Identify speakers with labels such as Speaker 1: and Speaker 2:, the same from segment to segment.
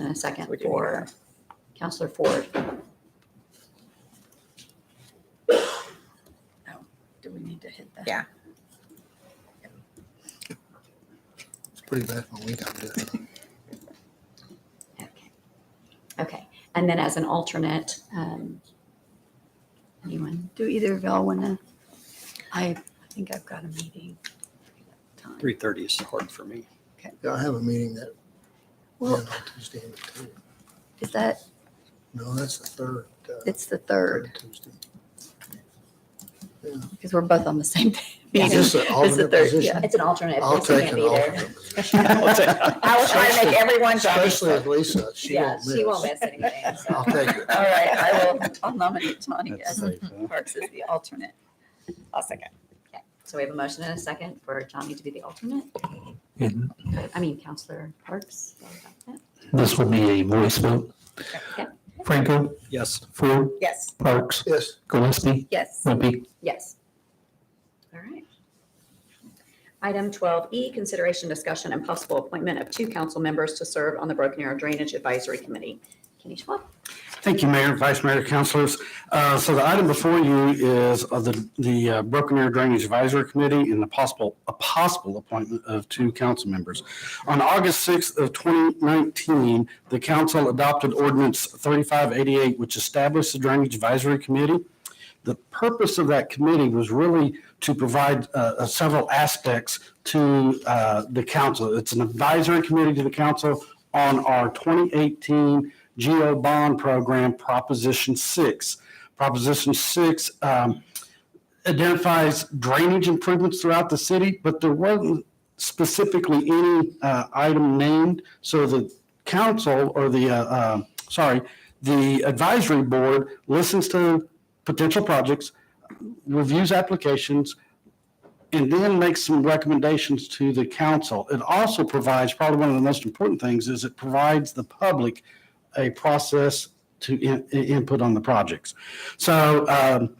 Speaker 1: and a second
Speaker 2: We do need
Speaker 1: for Counselor Ford.
Speaker 3: Oh, Do we need to hit that?
Speaker 2: Yeah.
Speaker 4: It's pretty bad when we got it.
Speaker 1: Okay. Okay, and then as an alternate, um, anyone?
Speaker 3: Do either of y'all want to? I I think I've got a meeting. Time.
Speaker 5: Three thirty is hard for me.
Speaker 4: Yeah, I have a meeting that, yeah,
Speaker 3: Well,
Speaker 4: on Tuesday and Tuesday.
Speaker 3: is that,
Speaker 4: No, that's the third. uh,
Speaker 3: it's the third,
Speaker 4: Tuesday.
Speaker 3: because we're both on the same
Speaker 4: Is
Speaker 3: meeting.
Speaker 4: this an alternate
Speaker 3: third,
Speaker 4: position?
Speaker 1: It's an alternate. if
Speaker 4: I'll
Speaker 1: Lisa can't
Speaker 4: take an
Speaker 1: be there.
Speaker 4: alternate position.
Speaker 1: I will try to make everyone job.
Speaker 4: Especially with Lisa, she
Speaker 1: Yeah,
Speaker 4: won't
Speaker 1: she won't
Speaker 4: miss.
Speaker 1: miss anything. so.
Speaker 4: I'll take it.
Speaker 3: All right, I will, I'll nominate Johnny
Speaker 5: That's
Speaker 3: as
Speaker 5: safe, huh?
Speaker 3: Parks as the alternate.
Speaker 2: I'll second.
Speaker 1: So we have a motion and a second for Johnny to be the alternate.
Speaker 6: And
Speaker 1: I mean, Counselor Parks. sorry about that.
Speaker 6: this will be a voice vote.
Speaker 1: Okay.
Speaker 6: Franco,
Speaker 5: Yes,
Speaker 6: Ford,
Speaker 2: Yes.
Speaker 6: Parks,
Speaker 4: Yes,
Speaker 6: Gillespie,
Speaker 3: Yes.
Speaker 6: Wimpy.
Speaker 1: Yes. All right. Item 12E, consideration, discussion, and possible appointment of two council members to serve on the Broken Arrow Drainage Advisory Committee. Kenny Schwab.
Speaker 7: Thank you, Mayor, Vice Mayor, Councilors. Uh, So the item before you is of the, the uh, Broken Arrow Drainage Advisory Committee and the possible, a possible appointment of two council members. On August 6th of 2019, the council adopted ordinance 3588, which established the Drainage Advisory Committee. The purpose of that committee was really to provide uh, several aspects to uh, the council. It's an advisory committee to the council on our 2018 GO bond program, Proposition 6. Proposition 6 um, identifies drainage improvements throughout the city, but there wasn't specifically any uh, item named. So the council or the, uh, uh, sorry, the advisory board listens to potential projects, reviews applications, and then makes some recommendations to the council. It also provides, probably one of the most important things, is it provides the public a process to in- i- input on the projects. So um,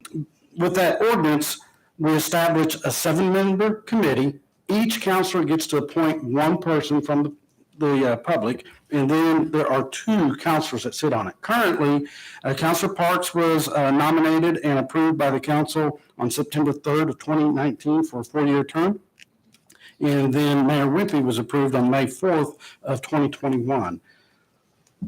Speaker 7: with that ordinance, we establish a seven-member committee. Each counselor gets to appoint one person from the the uh, public, and then there are two counselors that sit on it. Currently, uh, Counselor Parks was uh, nominated and approved by the council on September 3rd of 2019 for a four-year term. And then Mayor Wimpy was approved on May 4th of 2021.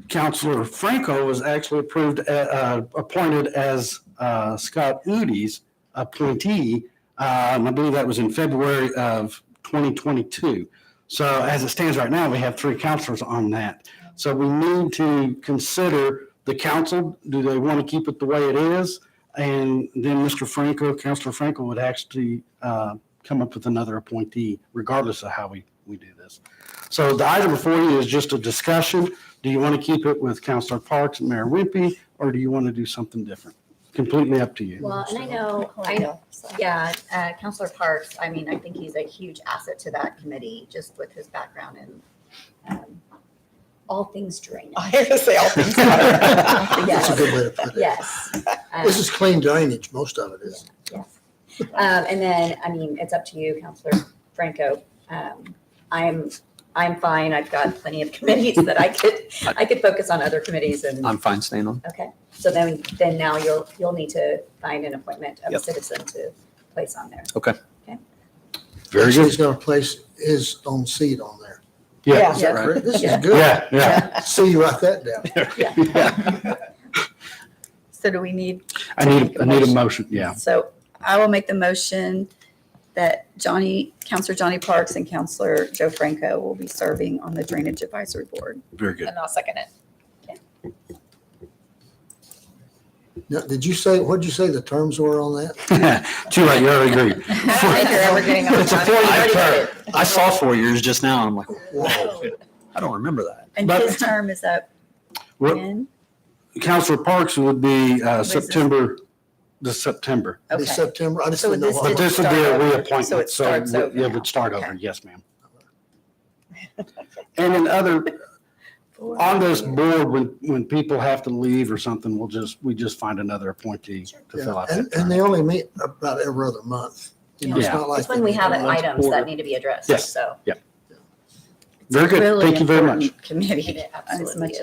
Speaker 7: Counselor Franco was actually approved, uh, uh, appointed as uh, Scott Udy's appointee, uh, and I believe that was in February of 2022. So as it stands right now, we have three counselors on that. So we need to consider the council, do they want to keep it the way it is? And then Mr. Franco, Counselor Franco would actually uh, come up with another appointee regardless of how we, we do this. So the item before you is just a discussion. Do you want to keep it with Counselor Parks and Mayor Wimpy, or do you want to do something different? Completely up to you.
Speaker 1: Well, and I know, I know, yeah, uh, Counselor Parks, I mean, I think he's a huge asset to that committee, just with his background in um, all things drainage.
Speaker 2: I was gonna say all things.
Speaker 4: that's a
Speaker 1: Yes,
Speaker 4: good way to put it.
Speaker 1: yes. Um,
Speaker 4: This is clean drainage, most of it is.
Speaker 1: Yes. Um, and then, I mean, it's up to you, Counselor Franco. Um, I'm, I'm fine. I've got plenty of committees that I could, I could focus on other committees and,
Speaker 5: I'm fine staying on.
Speaker 1: okay. So then, then now you'll, you'll need to find an appointment of a
Speaker 5: Yep.
Speaker 1: citizen to place on there.
Speaker 5: Very
Speaker 4: Actually, He's gonna place his own seat on there.
Speaker 2: Yeah.
Speaker 4: Is that correct? This is
Speaker 1: Yeah.
Speaker 4: good.
Speaker 7: Yeah, yeah.
Speaker 4: See, you write that down.
Speaker 3: So do we need,
Speaker 7: I need, I need a motion, yeah.
Speaker 3: so I will make the motion that Johnny, Counselor Johnny Parks and Counselor Joe Franco will be serving on the Drainage Advisory Board.
Speaker 7: Very good.
Speaker 2: And I'll second it.
Speaker 4: Now, did you say, what'd you say the terms were on that?
Speaker 7: Too late, you already agreed.
Speaker 2: I don't think you're ever getting on.
Speaker 7: It's a
Speaker 2: Johnny. I already
Speaker 7: four-year
Speaker 2: did
Speaker 7: term.
Speaker 2: it.
Speaker 5: I saw four years just now, and I'm like,
Speaker 4: Whoa.
Speaker 5: I don't remember that.
Speaker 3: And
Speaker 7: But-
Speaker 3: his term is up
Speaker 7: Well,
Speaker 3: when?
Speaker 7: Counselor Parks would be uh,
Speaker 3: This is-
Speaker 7: September, this September.
Speaker 3: Okay.
Speaker 4: This September, I just
Speaker 3: So
Speaker 4: didn't know.
Speaker 3: this
Speaker 4: what-
Speaker 7: But this would be
Speaker 3: start
Speaker 7: a
Speaker 3: over. So
Speaker 7: reappointment,
Speaker 3: it
Speaker 7: so
Speaker 3: starts
Speaker 7: it
Speaker 3: over
Speaker 7: would- it
Speaker 3: now.
Speaker 7: would start over,
Speaker 3: Okay.
Speaker 7: yes, ma'am. And in other, on this board, when, when people have to leave or something, we'll just, we just find another appointee to
Speaker 4: Yeah,
Speaker 7: fill out
Speaker 4: And, and
Speaker 7: that term.
Speaker 4: they only meet about every other month. You know, it's
Speaker 7: Yeah.
Speaker 4: not like.
Speaker 1: It's when we
Speaker 4: they-
Speaker 1: have
Speaker 7: it. Once
Speaker 1: items that
Speaker 7: quarter.
Speaker 1: need to be addressed,
Speaker 7: Yes.
Speaker 1: so.
Speaker 7: Very good,
Speaker 3: Really
Speaker 7: thank you very much.
Speaker 3: important Committee.
Speaker 1: It absolutely
Speaker 3: much
Speaker 1: is.